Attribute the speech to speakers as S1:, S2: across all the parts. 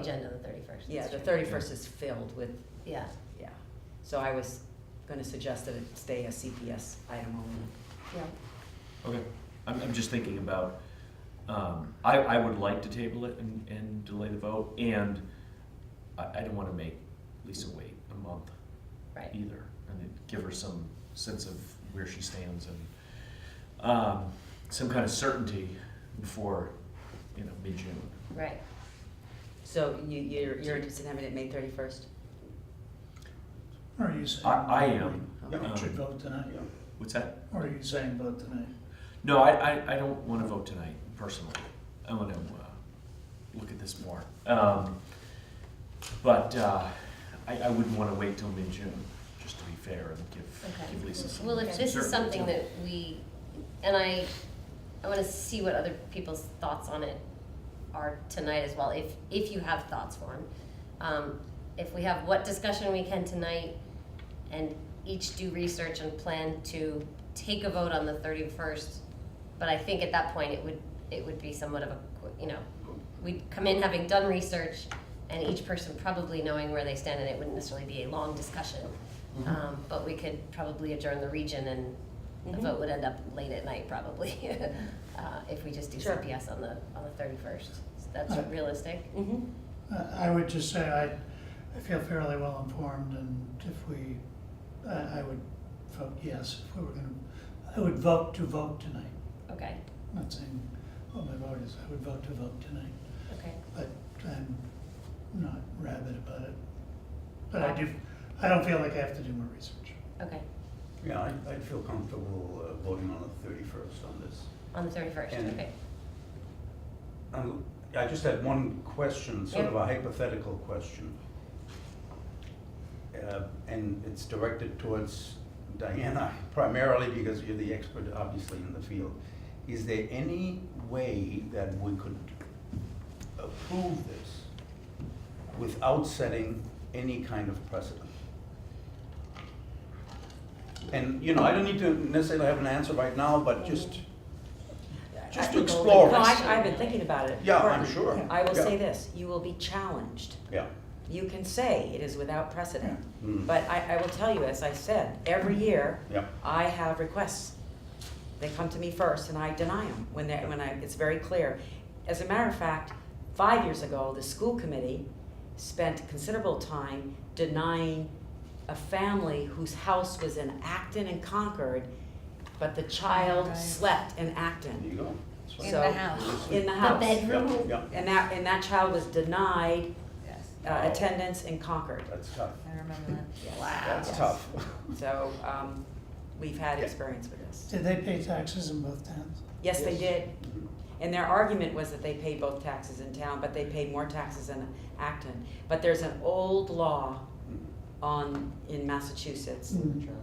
S1: agenda the thirty-first.
S2: Yeah, the thirty-first is filled with,
S1: Yeah,
S2: yeah. So I was gonna suggest that it stay a CPS item only.
S1: yeah,
S3: Okay, I'm, I'm just thinking about, um, I, I would like to table it and, and delay the vote, and I, I don't wanna make Lisa wait a month
S1: right.
S3: either, and then give her some sense of where she stands and, um, some kind of certainty before, you know, mid-June.
S1: Right.
S2: So you, you're, you're interested in having it May thirty-first?
S4: Or Are you saying?
S3: I, I am,
S4: We should vote tonight,
S3: what's that?
S4: or are you saying vote tonight?
S3: No, I, I, I don't wanna vote tonight, personally, I wanna, uh, look at this more. Um, but, uh, I, I wouldn't wanna wait till mid-June, just to be fair, and give,
S1: Okay.
S3: give Lisa some.
S1: Well, if
S3: some
S1: this is
S3: certainty.
S1: something that we, and I, I wanna see what other people's thoughts on it are tonight as well, if, if you have thoughts for them. Um, if we have what discussion we can tonight and each do research and plan to take a vote on the thirty-first. But I think at that point, it would, it would be somewhat of a, qu- you know, we'd come in having done research and each person probably knowing where they stand and it wouldn't necessarily be a long discussion.
S3: Mhm.
S1: Um, but we could probably adjourn the region and the
S2: Mhm.
S1: vote would end up late at night probably, uh, if we just do
S2: Sure.
S1: CPS on the, on the thirty-first. That's
S4: Alright.
S1: realistic.
S2: Mm-hmm.
S4: I, I would just say I, I feel fairly well informed and if we, I, I would vote yes if we were gonna, I would vote to vote tonight.
S1: Okay,
S4: I'm not saying what my vote is, I would vote to vote tonight,
S1: okay,
S4: but I'm not rabid about it. But I do, I don't feel like I have to do more research.
S1: okay,
S5: Yeah, I- I'd feel comfortable uh, voting on the 31st on this.
S1: on the thirty-first,
S5: And-
S1: okay.
S5: Um, I just had one question, sort of a hypothetical question. Uh, And it's directed towards Diana primarily because you're the expert, obviously, in the field. Is there any way that we could approve this without setting any kind of precedent? And, you know, I don't need to necessarily have an answer right now, but just, Just to explore
S2: No,
S5: this.
S2: I, I've been thinking about it.
S5: yeah, I'm
S2: Courtney.
S5: sure.
S2: I will
S5: Yeah.
S2: say this, you will be challenged.
S5: Yeah.
S2: You can say it is without precedent,
S5: Mm.
S2: but I, I will tell you, as I said, every year,
S5: Yeah.
S2: I have requests. They come to me first and I deny them when they, when I, it's very clear. As a matter of fact, five years ago, the school committee spent considerable time denying a family whose house was in Acton and Concord, but the child
S1: Right.
S2: slept in Acton,
S5: There you go. That's right.
S2: so.
S1: house.
S2: In the
S1: The
S2: house.
S1: bedroom.
S5: Yeah, yeah,
S2: And that, and that child was denied
S6: Yes,
S2: uh, attendance in Concord.
S5: that's tough.
S6: I remember that.
S5: That's
S2: Yes.
S5: tough.
S2: So, um, we've had experience with this.
S4: Did they pay taxes in both towns?
S2: Yes, they
S5: Yes.
S2: did. And their argument was that they paid both taxes in town, but they paid more taxes in Acton. But there's an old law on, in Massachusetts.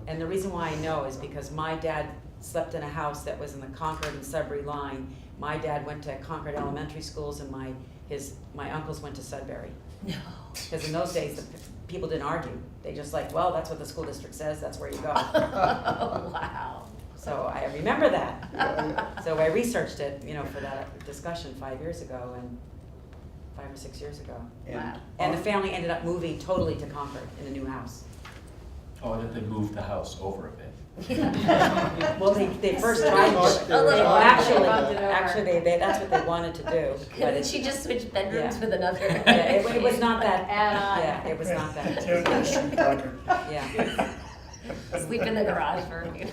S2: And the reason why I know is because my dad slept in a house that was in the Concord and Sudbury line. My dad went to Concord elementary schools and my, his, my uncles went to Sudbury.
S1: No.
S2: Because in those days, the p- people didn't argue. They just like, well, that's what the school district says, that's where you go.
S1: Wow.
S2: So I remember that.
S5: Yeah, yeah.
S2: So I researched it, you know, for that discussion five years ago and five or six years ago.
S5: And-
S2: And the family ended up moving totally to Concord in a new house.
S3: Oh, that they moved the house over a bit.
S2: Well, they, they first tried,
S1: A little
S2: well,
S1: bit.
S2: actually,
S1: Bumped it over.
S2: actually, they, they, that's what they wanted to do, but
S1: Couldn't
S2: it,
S1: she just switch bedrooms
S2: Yeah.
S1: with another?
S2: yeah, it, it was not that,
S6: Add on.
S2: yeah, it was not that, yeah,
S1: Sleep in the garage for a minute.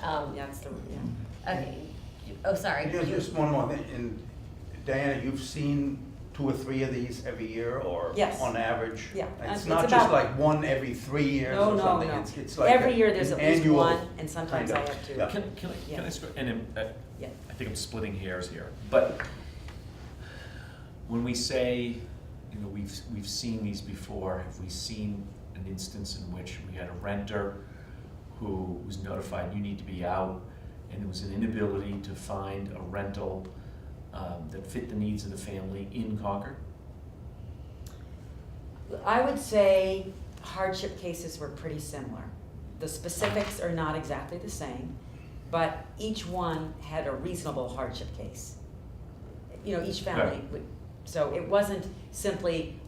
S1: Um,
S2: yeah, it's the, yeah.
S1: Okay, You- oh, sorry.
S5: Just, just one more thing, and Diana, you've seen two or three of these every year or?
S2: Yes.
S5: On average?
S2: Yeah, and
S5: It's
S2: it's
S5: not just
S2: about-
S5: like one every three years
S2: No,
S5: or
S2: no,
S5: something,
S2: no.
S5: it's, it's like.
S2: Every
S5: a-
S2: year there's
S5: an
S2: at least
S5: annual
S2: one, and sometimes
S5: kind
S2: I
S5: of-
S2: have two.
S5: yeah.
S3: Can, can I, can I, sp- and, uh,
S2: Yeah.
S3: I think I'm splitting hairs here, but when we say, you know, we've, we've seen these before, have we seen an instance in which we had a renter who was notified, you need to be out, and there was an inability to find a rental, um, that fit the needs of the family in Concord?
S2: I would say hardship cases were pretty similar. The specifics are not exactly the same, but each one had a reasonable hardship case. You know, each family
S3: Right.
S2: would So it wasn't simply